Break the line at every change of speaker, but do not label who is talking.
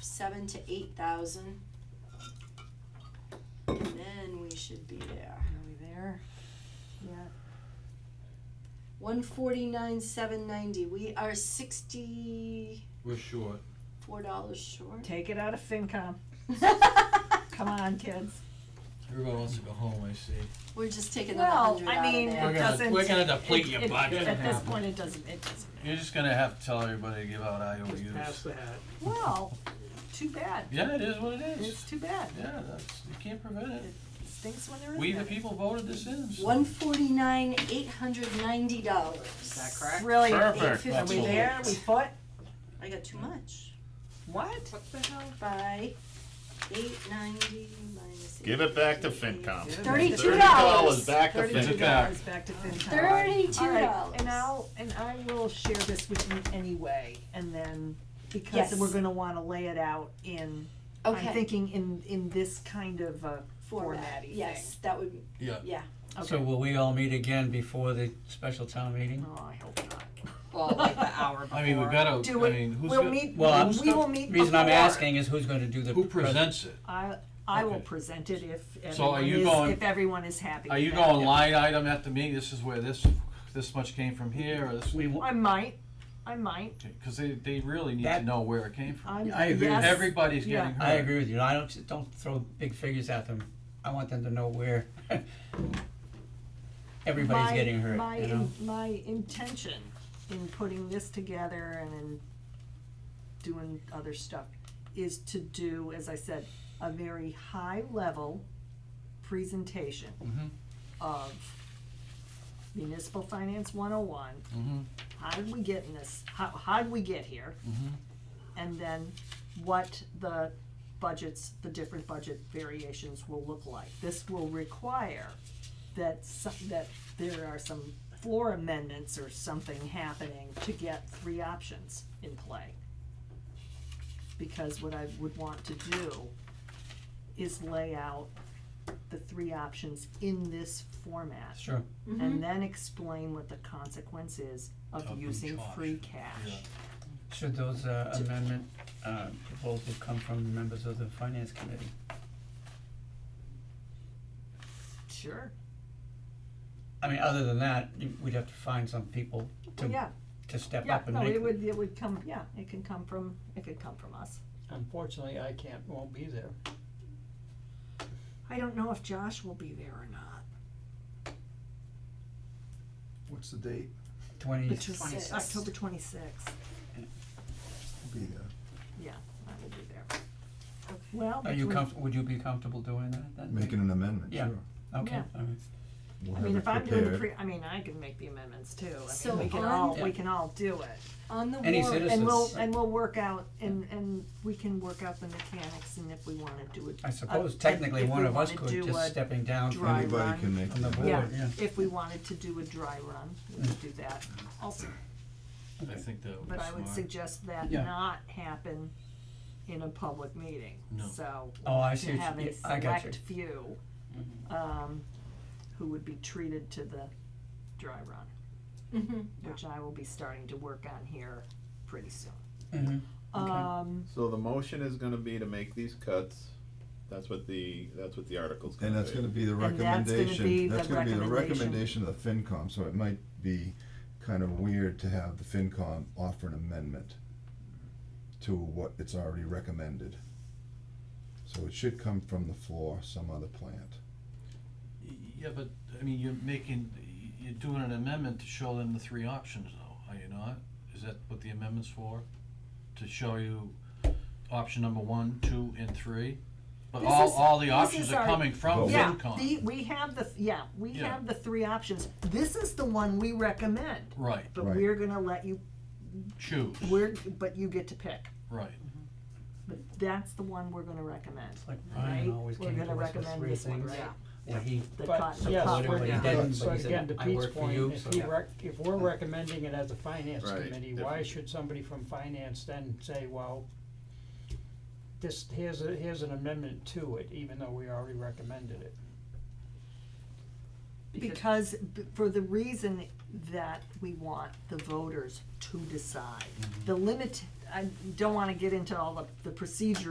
seven to eight thousand. And then we should be there.
Are we there? Yeah.
One forty-nine, seven ninety, we are sixty-four
We're short.
dollars short.
Take it out of FinCom. Come on, kids.
Everybody wants to go home, I see.
We're just taking the
Well,
hundred
I
out
mean,
of
it
We're
there.
gonna-
doesn't.
we're gonna deplete
it-
your
it-
budget.
At this
Happen.
point, it doesn't, it doesn't.
You're just gonna have to tell everybody to give out
Just pass
IOUs.
the hat.
Well, too bad.
Yeah, it is what it
It's
is.
too bad.
Yeah, that's, you can't prevent it.
Stinks when there is.
We, the
none.
people voted this in. so-
One forty-nine, eight hundred ninety dollars. Is
that correct?
Really? Are
Perfect.
Eight
that's
we
what it
there?
is.
We foot?
I got too much.
What?
What the hell?
By eight ninety minus.
Give it back to
880.
FinCom.
Thirty-two dollars.
$30 back to
Thirty-two
FinCom.
dollars back to FinCom.
Thirty-two
All right,
dollars.
And I'll, and I will share this with you anyway, and then, because
Yes.
we're gonna wanna lay it out in, I'm
Okay,
thinking in, in this kind of uh, a
format,
formatty thing.
yes, that would,
Yeah.
yeah.
So
Okay,
will we all meet again before the special town meeting?
oh, I hope not.
Well, like the hour before.
I mean, we gotta,
Do
I
it.
mean, who's
We'll
gonna-
meet, we
Well, I'm-
will meet before.
Reason I'm asking is who's gonna do the.
who
pres-
presents it?
I, I will
Okay.
present it if
So are
everyone
you
is,
going-
if everyone is happy
Are
with
you
that.
going line item after me, this is where this, this much came from here, or this,
We, wa-
I might, I might,
cause they, they really need to
That-
know where it came from.
I'm, yes.
I agree with
Everybody's
Yeah.
getting hurt.
I agree with you, I don't, don't throw big figures at them, I want them to know where everybody's
My-
getting hurt,
my
you
in-
know?
My intention in putting this together and in doing other stuff is to do, as I said, a very high level presentation
Mhm.
of municipal finance one oh one,
Mhm,
how did we get in this, how, how did we get here?
mhm.
and then what the budgets, the different budget variations will look like. This will require that some, that there are some floor amendments or something happening to get three options in play. Because what I would want to do is lay out the three options in this format
Sure,
Mm-hmm.
and then explain what the consequence is
Of
of
each
using free
option,
cash.
yeah.
should those uh, amendment, uh, proposals come from members of the finance committee?
Sure.
I mean, other than that, you- we'd have to find some people
Well,
to,
yeah,
to step
Yeah,
up and
no,
make.
it would, it would come, yeah, it can come from, it could come from us.
Unfortunately, I can't, won't be there.
I don't know if Josh will be there or not.
What's the date?
Twenty,
Which was
26th.
October twenty-sixth,
Be there.
I will be there.
Okay.
Well,
are you
between-
comfortable, would you be comfortable doing that then?
Making an amendment,
Yeah.
sure.
Okay,
Yeah.
all right.
I
We'll have
mean,
it
if I'm doing the
prepared.
pre, I mean, I can make the amendments too, I
So
mean, we can
on-
all, we
Yeah.
can all do it.
On the
Any
warrant,
citizen-
And we'll,
Citizens.
and we'll work out, and, and we can work out the mechanics and if we wanna do it.
I suppose
uh,
technically
if we
one of us
wanna
could,
do a-
just stepping down from,
dry
Anybody
run.
can make
from the
the
board,
Yeah,
amendment.
uh, yeah.
if we wanted to do a dry run, we could do that also.
I think that would be
But I would
smart.
suggest that
Yeah.
not happen in a public meeting.
No.
So
Oh, I see
to
what
have
you- Mm-hmm.
a
yeah, I got
select few, um, who would be treated to the dry run,
Mhm.
which I will be starting to work on here pretty soon.
Mm-hmm.
Mhm. Okay.
Um,
So the motion is gonna be to make these cuts. That's what the, that's what the article's gonna
And
be.
that's gonna be the
And that's gonna be
recommendation, that's
the
gonna be the
recommendation.
recommendation of the FinCom, so it might be kind of weird to have the FinCom offer an amendment to what it's already recommended. So it should come from the floor, some other plant.
Yeah, but, I mean, you're making, you're doing an amendment to show them the three options though, are you not? Is that what the amendment's for? To show you option number one, two, and three? But
This
all,
is-
all the
this
options
is
are
our-
coming from
Vote.
yeah,
FinCom.
the, we have the, yeah, we
Yeah.
have the three options. This is the one we recommend,
Right,
but
Right.
we're gonna let you,
choose,
we're, but you get to pick.
right.
But that's the one we're gonna recommend,
It's like
right?
Ryan always came to
We're gonna
us with
recommend
three
this one,
things,
right?
where he,
The
But
co- the
yes,
cop
Voted
we're
one.
what he
not.
did,
So
but he said,
again, to
"I
Pete's
work for
point,
you,"
if
so-
he
Yeah.
rec- if we're recommending it as a finance
Right,
committee, why
different.
should somebody from finance then say, well, this, here's a, here's an amendment to it, even though we already recommended it?
Because, b- for the reason that we want the
Mm-hmm.
voters to decide. The limit, I don't wanna get into all the, the procedure